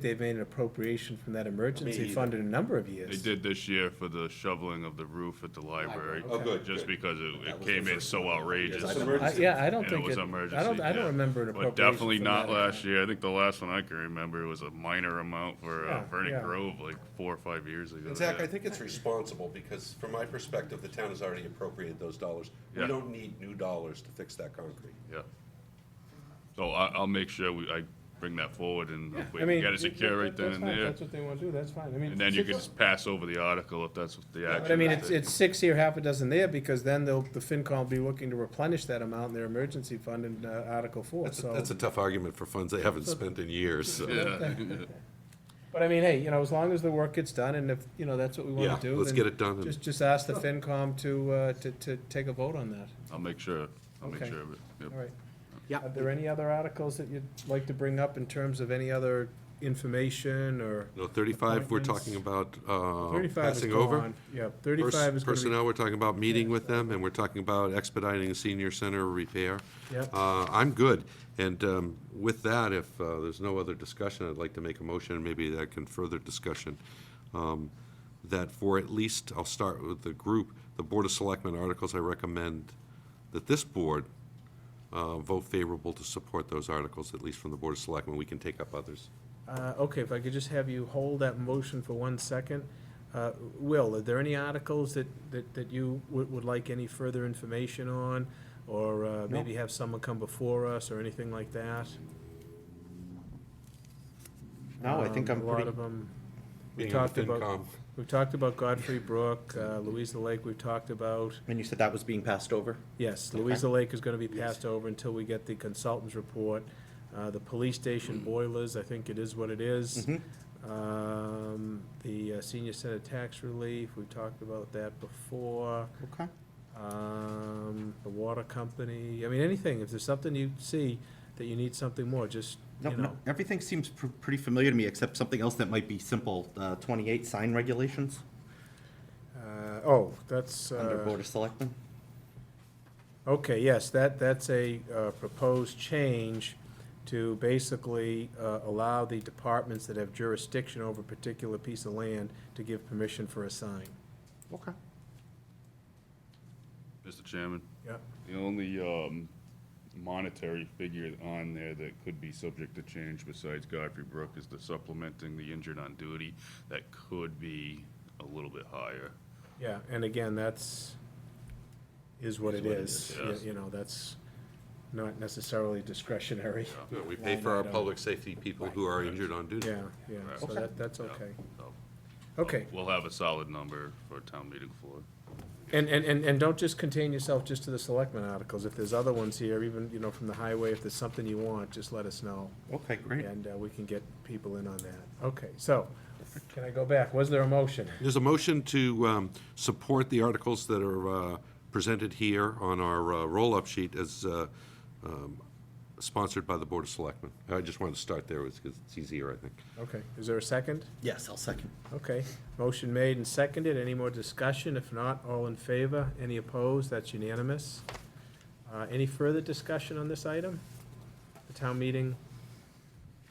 They've made an appropriation from that emergency either. fund in a number of years. They did this year for the shoveling of the roof at the library. Oh, good, Just good. because it, That it was the came in first so one. outrageous. Yes, I and remember. I- Yeah, I don't it think was it, I emergency, don't, I yeah. don't remember an But appropriation. definitely from not that last account. year. I think the last one I can remember was a minor amount for uh, Yeah, yeah. Vernon Grove, like four or five years ago. And Zach, yeah. I think it's responsible, because from my perspective, the town has already appropriated those dollars. We Yeah. don't need new dollars to fix that concrete. Yeah. So I, I'll make sure we, I bring that forward and if we I can mean, get that- it secure right that- then that's and fine. there. That's what they want to do, that's fine, I mean. And then you can six- just pass over the article if that's what the action. But I mean, is. it's, it's six here, half a dozen there, because then they'll, the FinCom will be looking to replenish that amount in their emergency fund in uh, Article Four, so. tough argument for funds they haven't spent in years, so. Yeah. But I mean, hey, you know, as long as the work gets done, and if, you know, that's what we Yeah, want to do. let's then get it done and- Just, just ask the FinCom to, uh, to, to take a vote on that, I'll make sure, I'll make Okay. sure of it. Yep. all right. Yeah. Are there any other articles that you'd like to bring up in terms of any other information or? No, 35, we're Appointments. talking about uh, 35 is passing gone. over. Yeah, Pers- thirty-five is gonna be, Personnel, we're talking about meeting with them, and we're talking about expediting senior center repair. Yep. Uh, I'm good. And um, with that, if uh, there's no other discussion, I'd like to make a motion, maybe that can further discussion, um, that for at least, I'll start with the group, the Board of Selectmen articles, I recommend that this board uh, vote favorable to support those articles, at least from the Board of Selectmen. We can take up others. uh, okay, if I could just have you hold that motion for one second. Uh, Will, are there any articles that, that, that you would, would like any further information on? Or uh, maybe have someone come before us or anything like that? No, I think Um, I'm A lot pretty, of them. We Being on talked the about, FinCom. we talked about Godfrey Brook, uh, Louisa Lake, we've talked about. and you said that was being passed over? Yes, Louisa Lake is gonna be passed over until we get the consultant's report. Uh, the police Mm. station boilers, I think it is what it is. Mm-hmm. Um, the uh, senior center tax relief, we talked about that before. Okay. Um, the water company, I mean, anything, if there's something you see that you need something more, just, No, you know. no, everything seems pr- pretty familiar to me, except something else that might be simple, uh, 28 sign regulations Uh, oh, that's, under uh, Board of Selectmen. Okay, yes, that, that's a uh, proposed change to basically uh, allow the departments that have jurisdiction over a particular piece of land to give permission for a sign. Okay. Mr. Chairman? Yeah. The only um, monetary figure on there that could be subject to change besides Godfrey Brook is the supplementing the injured on duty. That could be a little bit higher. Yeah, and again, that's, is what it is. it is, You- You know, that's not necessarily discretionary. Yeah, We pay for our public safety people who are injured on duty. Yeah, yeah, so Right. that, that's Yeah, okay. so Okay, We'll have a solid number for town meeting floor. and, and, and and don't just contain yourself just to the selectmen articles. If there's other ones here, even, you know, from the highway, if there's something you want, just let us know. Okay, great. And uh, we can get people in on that. Okay, so, can I go back? Was there a motion? There's a motion to um, support the articles that are uh, presented here on our uh, roll-up sheet as uh, um, sponsored by the Board of Selectmen. I just wanted to start there, because it's easier, I think. Okay, is there a second? Yes, I'll second. Okay, motion made and seconded. Any more discussion? If not, all in favor? Any opposed? That's unanimous. Uh, Any further discussion on this item? The town meeting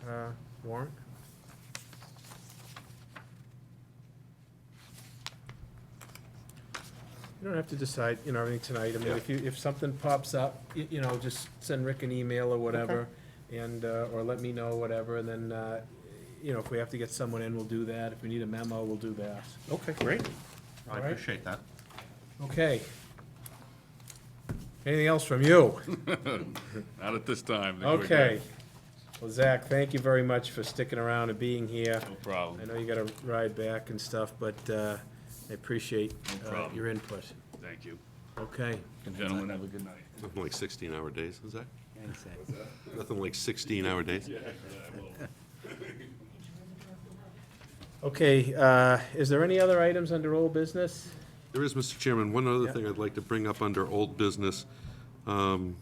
uh, warrant? You don't have to decide, you know, everything tonight. I mean, if you, if something pops up, you, you know, just send Rick an email or whatever, and, uh, or let me know, whatever, and then, uh, you know, if we have to get someone in, we'll do that. If we need a memo, we'll do that. Okay, great. All I right. appreciate that. Okay. Anything else from you? Not at this time. I think we're good. Okay. Well, Zach, thank you very much for sticking around and being here. No I problem. know you gotta ride back and stuff, but, uh, I appreciate, No uh, problem. your input. Thank you. Okay. Gentlemen, have a good night. Nothing like 16-hour days, is that? Nothing like 16-hour days. Okay, uh, is there any other items under old business? There is, Mr. Chairman, one other Yeah. thing I'd like to bring up under old business, um,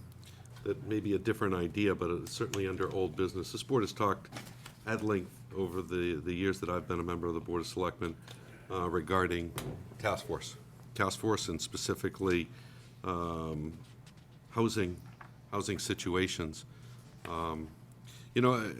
that may be a different idea, but it's certainly under old business. This board has talked at length over the, the years that I've been a member of the Board of Selectmen uh, regarding task force. Task force and specifically um, housing, housing situations. Um, You know, uh,